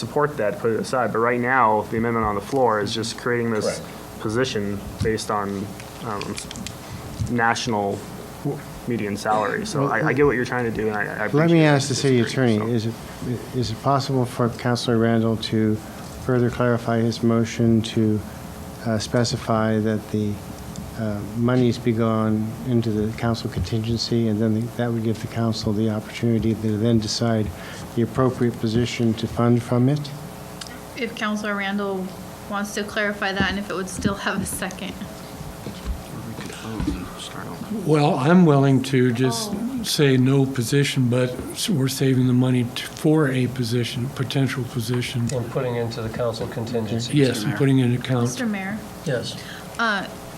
support that, put it aside, but right now, the amendment on the floor is just creating this Correct. position based on um, s- national median salary, so I I get what you're trying to do, and I- I Let appreciate me it. ask the city Disagree, attorney, so. is it, is it possible for Counselor Randall to further clarify his motion to uh, specify that the uh, monies be gone into the council contingency, and then that would give the council the opportunity to then decide the appropriate position to fund from it? If Counselor Randall wants to clarify that and if it would still have a second. Well, I'm willing to just say no position, but we're saving the money t- for a position, potential position. We're putting into the council contingency. Yes, and putting it in Um, account. Mr. Mayor, uh, Yes.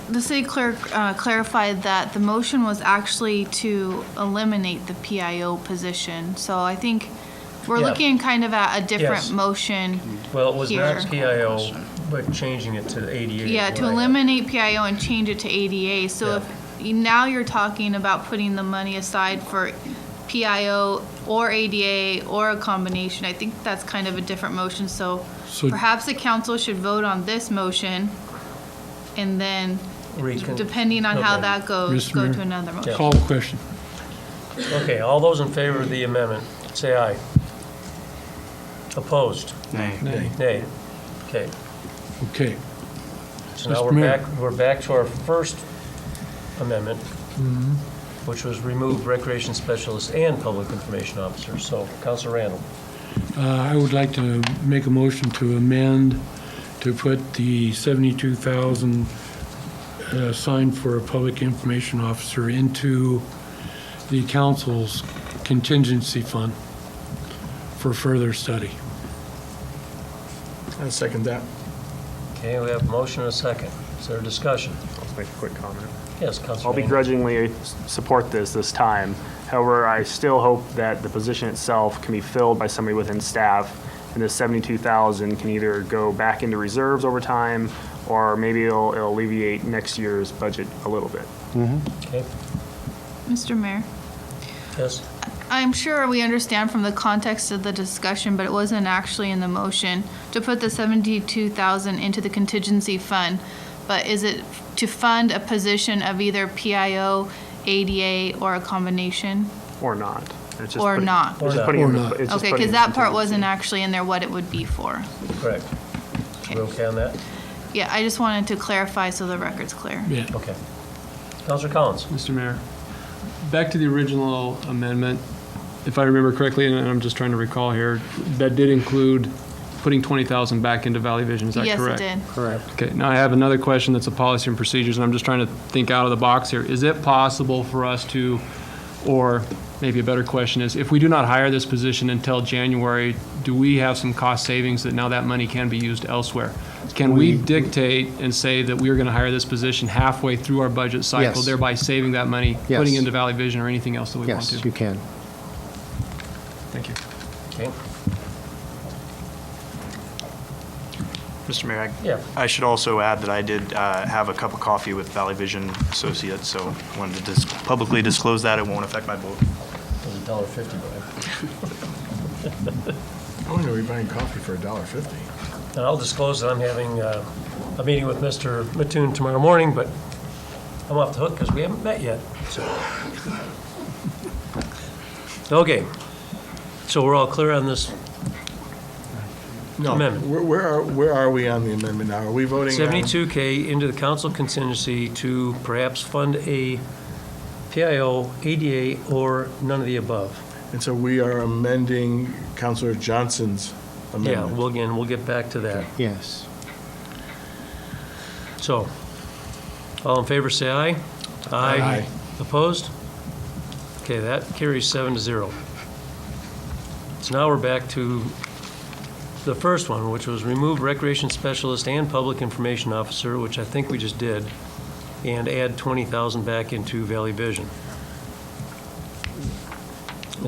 the city clerk uh, clarified that the motion was actually to eliminate the PIO position. So I think we're Yeah. looking kind of at a Yes. different motion. Well, it was not Here. PIO, but changing it to 88. is Yeah, what to I- eliminate PIO and change it to ADA. Yeah. So if, you- now you're talking about putting the money aside for PIO or ADA or a combination. I think that's kind of a different motion, so So- perhaps the council should vote on this motion and then, Recon- depending on how okay. that goes, Mr. go Mayor? to another motion. Call the question. Okay, all those in favor of the amendment, say aye. Opposed? Nay. Nay. Okay, Okay. so now Mr. we're Mayor. back, we're back to our first amendment, Mm-hmm. which was remove recreation specialist and public information officer. So, Council Randall, Uh, I would like to make a motion to amend, to put the 72,000 uh, signed for a public information officer into the council's contingency fund for further study. I second that. okay, we have a motion and a second. Is there a discussion? I'll just make a quick comment. Yes, Council I'll Randall. begrudgingly s- support this this time. However, I still hope that the position itself can be filled by somebody within staff, and this 72,000 can either go back into reserves over time, or maybe it'll it'll alleviate next year's budget a little bit. Okay, Mr. Mayor? yes? I'm sure we understand from the context of the discussion, but it wasn't actually in the motion, to put the seventy-two thousand into the contingency fund. But is it to fund a position of either PIO, ADA, or a combination, Or not. It's just or putting- not? it's just Or putting in not. the- Or not. it's just Okay, putting because in that part wasn't contingency. actually in there what it would be for. Correct. We okay on that? Yeah, I just wanted to clarify so the record's clear. Yeah. Okay. Counselor Collins? Mr. Mayor, back to the original amendment, if I remember correctly, and I'm just trying to recall here, that did include putting 20,000 back into Valley Vision, is that Yes, it correct? did. Correct. Okay, now I have another question that's a policy and procedures, and I'm just trying to think out of the box here. Is it possible for us to, or maybe a better question is, if we do not hire this position until January, do we have some cost savings that now that money can be used elsewhere? Can we dictate and say that we are going to hire this position halfway through our budget cycle, Yes. thereby saving that money, Yes. putting into Valley Vision or anything else that we want to? Yes, you can. Thank you. Okay, Mr. Mayor, I- yeah. I should also add that I did uh, have a cup of coffee with Valley Vision Associates, so wanted to dis- publicly disclose that. It won't affect my vote. It was a dollar fifty, but I wonder we buying coffee for a dollar fifty. I- and I'll disclose that I'm having uh, a meeting with Mr. Mattoon tomorrow morning, but I'm off the hook because we haven't met yet, so. Okay, so we're all clear on this No. Amendment. Where, where are, where are we on the amendment now? Are we voting on? seventy-two K into the council contingency to perhaps fund a PIO, ADA, or none of the above. And so we are amending Counselor Johnson's Yeah, amendment. well, again, we'll get back to that. Yes. So, all in favor, say aye. Aye. Opposed? Okay, that carries seven to zero. So now we're back to the first one, which was remove recreation specialist and public information officer, which I think we just did, and add 20,000 back into Valley Vision.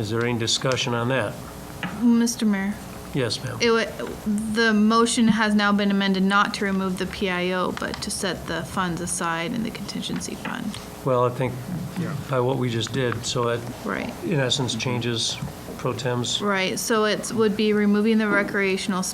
Is there any discussion on that? Mr. Mayor? Yes, ma'am. It would, the motion has now been amended not to remove the PIO, but to set the funds aside in the contingency fund. Well, I think by what we just did, so it, Right. in essence, changes pro tems Right, so it would be removing the recreational